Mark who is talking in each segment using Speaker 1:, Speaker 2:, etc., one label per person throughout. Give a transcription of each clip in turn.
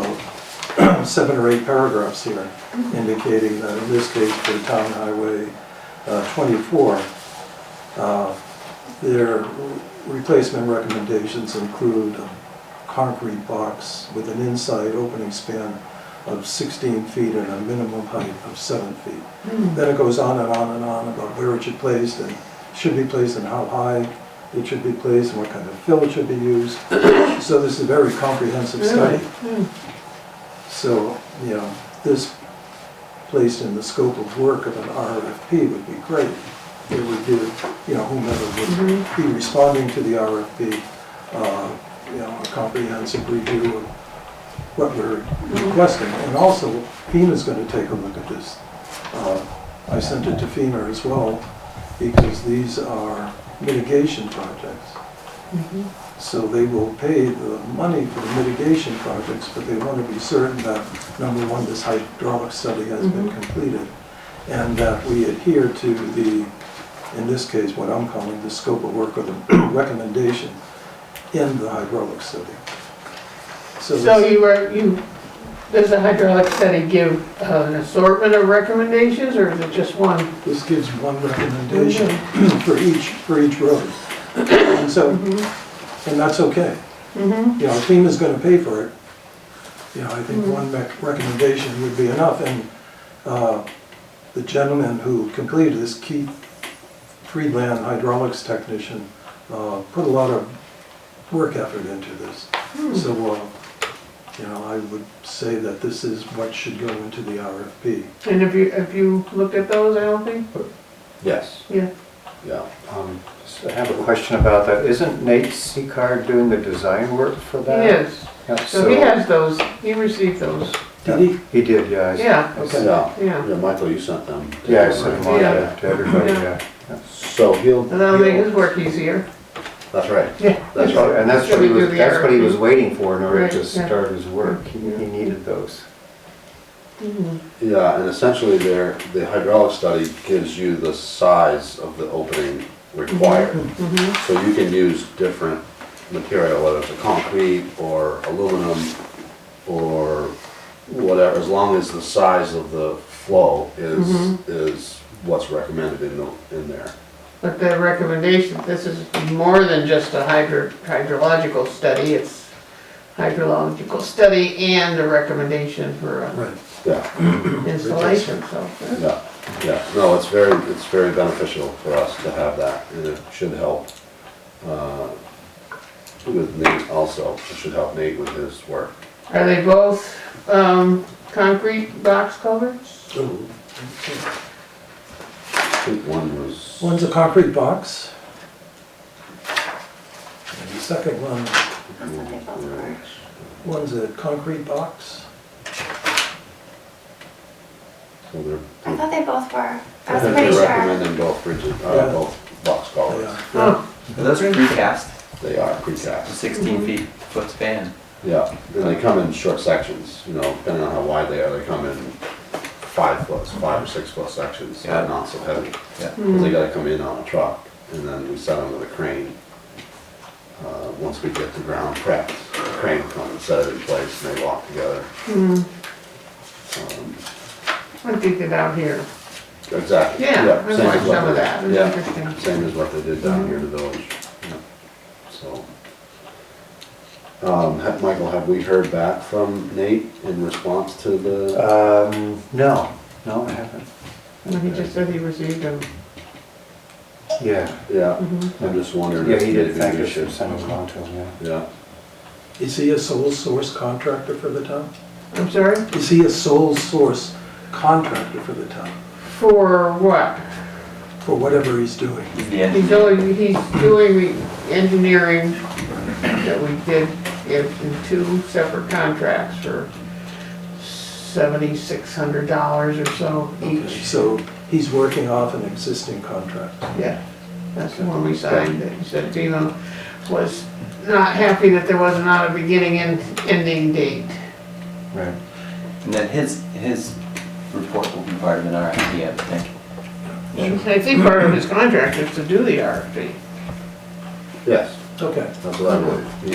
Speaker 1: about seven or eight paragraphs here indicating that in this case for Town Highway uh, 24, uh, their replacement recommendations include a concrete box with an inside opening span of 16 feet and a minimum height of 7 feet. Then it goes on and on and on about where it should be placed and should be placed and how high it should be placed and what kind of fill should be used. So this is a very comprehensive study.
Speaker 2: Mm.
Speaker 1: So, you know, this placed in the scope of work of an RFP would be great. It would give, you know, whomever would be responding to the RFP, uh, you know, a comprehensive review of what we're requesting. And also FEMA's gonna take a look at this. Uh, I sent it to FEMA as well because these are mitigation projects. So they will pay the money for the mitigation projects, but they want to be certain that, number one, this hydraulic study has been completed, and that we adhere to the, in this case, what I'm calling the scope of work or the recommendation in the hydraulic study. So
Speaker 2: So
Speaker 1: this-
Speaker 2: you are, you, does the hydraulic study give uh, an assortment of recommendations, or is it just one?
Speaker 1: this gives one recommendation for each, for each road. And so, and that's okay.
Speaker 2: Mm-hmm.
Speaker 1: you know, FEMA's gonna pay for it. You know, I think one rec- recommendation would be enough, and, uh, the gentleman who completed this, Keith Freeland, hydraulics technician, uh, put a lot of work effort into this. So, uh, you know, I would say that this is what should go into the RFP.
Speaker 2: And have you, have you looked at those, I don't think?
Speaker 3: Yes,
Speaker 2: Yeah.
Speaker 3: yeah. Um, so I have a question about that. Isn't Nate Seacard doing the design work for
Speaker 2: He
Speaker 3: that?
Speaker 2: is.
Speaker 3: Yeah,
Speaker 2: So he has those, he received those,
Speaker 1: Did he?
Speaker 3: He did, yeah. I s-
Speaker 2: Yeah,
Speaker 3: I s-
Speaker 1: okay.
Speaker 4: Yeah,
Speaker 2: Yeah.
Speaker 4: yeah, Michael, you sent them.
Speaker 3: Yeah, I sent him on
Speaker 2: Yeah.
Speaker 3: to to everybody,
Speaker 2: Yeah.
Speaker 3: yeah. yeah.
Speaker 4: So he'll.
Speaker 2: and that'll make his
Speaker 4: he'll-
Speaker 2: work easier.
Speaker 4: That's right.
Speaker 2: Yeah.
Speaker 4: That's
Speaker 3: Oh,
Speaker 4: right.
Speaker 3: And that's
Speaker 2: Should
Speaker 3: what he
Speaker 2: we do
Speaker 3: was,
Speaker 2: the
Speaker 3: that's what he was
Speaker 2: RFP?
Speaker 3: waiting for in order
Speaker 2: Right,
Speaker 3: to
Speaker 2: yeah.
Speaker 3: start his work. He he needed those.
Speaker 4: Yeah, and essentially there, the hydraulic study gives you the size of the opening required.
Speaker 2: Mm-hmm.
Speaker 4: So you can use different material, whether it's a concrete or aluminum or whatever, as long as the size of the flow is,
Speaker 2: Mhm.
Speaker 4: is what's recommended in the, in there.
Speaker 2: But the recommendation, this is more than just a hydro, hydrological study, it's hydrological study and a recommendation for uh,
Speaker 1: Right.
Speaker 4: Yeah,
Speaker 2: installation, so.
Speaker 4: yeah, yeah. No, it's very, it's very beneficial for us to have that and it should help, uh, with Nate also. It should help Nate with his work.
Speaker 2: Are they both, um, concrete box culverts?
Speaker 4: I think one was.
Speaker 1: One's a concrete box. And the second one, one's a concrete box.
Speaker 4: So they're.
Speaker 5: I thought they both were. I was
Speaker 4: think
Speaker 5: pretty
Speaker 4: They
Speaker 5: sure.
Speaker 4: recommend them both bridges,
Speaker 1: Yeah.
Speaker 4: uh, both box
Speaker 1: Yeah.
Speaker 4: collars.
Speaker 2: Oh,
Speaker 6: Are those precast?
Speaker 4: They are precast.
Speaker 6: 16 feet foot span.
Speaker 4: Yeah, and they come in short sections, you know, depending on how wide they are, they come in five foot, five or six foot sections,
Speaker 6: Yeah.
Speaker 4: but not so heavy.
Speaker 6: Yeah.
Speaker 4: Cause they gotta come in on a truck and then we set them with a crane. Uh, once we get the ground prepped, the crane will come and set it in place and they walk together.
Speaker 2: hmm,
Speaker 4: Um,
Speaker 2: I did it out here.
Speaker 4: Exactly.
Speaker 2: Yeah, I
Speaker 4: same as
Speaker 2: watched
Speaker 4: what
Speaker 2: some of
Speaker 4: they-
Speaker 2: that, it was
Speaker 4: yeah,
Speaker 2: interesting. Mm-hmm.
Speaker 4: Same as what they did down here in the village. Yeah, So. Um, ha- Michael, have we heard back from Nate in response to the,
Speaker 3: Um, no, no, I haven't.
Speaker 2: And he just said he received them.
Speaker 3: Yeah.
Speaker 4: yeah,
Speaker 2: Mhm.
Speaker 4: I'm just wondering
Speaker 3: Yeah,
Speaker 4: if
Speaker 3: he
Speaker 4: maybe
Speaker 3: did thank
Speaker 4: we
Speaker 3: us for
Speaker 4: should.
Speaker 3: sending them on to him, yeah.
Speaker 4: Yeah,
Speaker 1: Is he a sole source contractor for the town?
Speaker 2: I'm sorry,
Speaker 1: Is he a sole source contractor for the town,
Speaker 2: for what?
Speaker 1: for whatever he's doing?
Speaker 6: He's the end.
Speaker 2: He's only, he's doing the engineering that we did in, in two separate contracts for seventy-six hundred dollars or so each.
Speaker 1: So he's working off an existing contract.
Speaker 2: Yeah, that's the one we signed, that you said FEMA was not happy that there was not a beginning and ending date.
Speaker 3: Right.
Speaker 6: And then his, his report will be part of an RFP, I would think.
Speaker 2: And I think part of his contract is to do the RFP.
Speaker 4: yes,
Speaker 1: Okay.
Speaker 4: that's what I believe. He,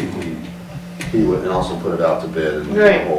Speaker 4: he, he would, and also put it out to bid and the
Speaker 2: Right.
Speaker 4: whole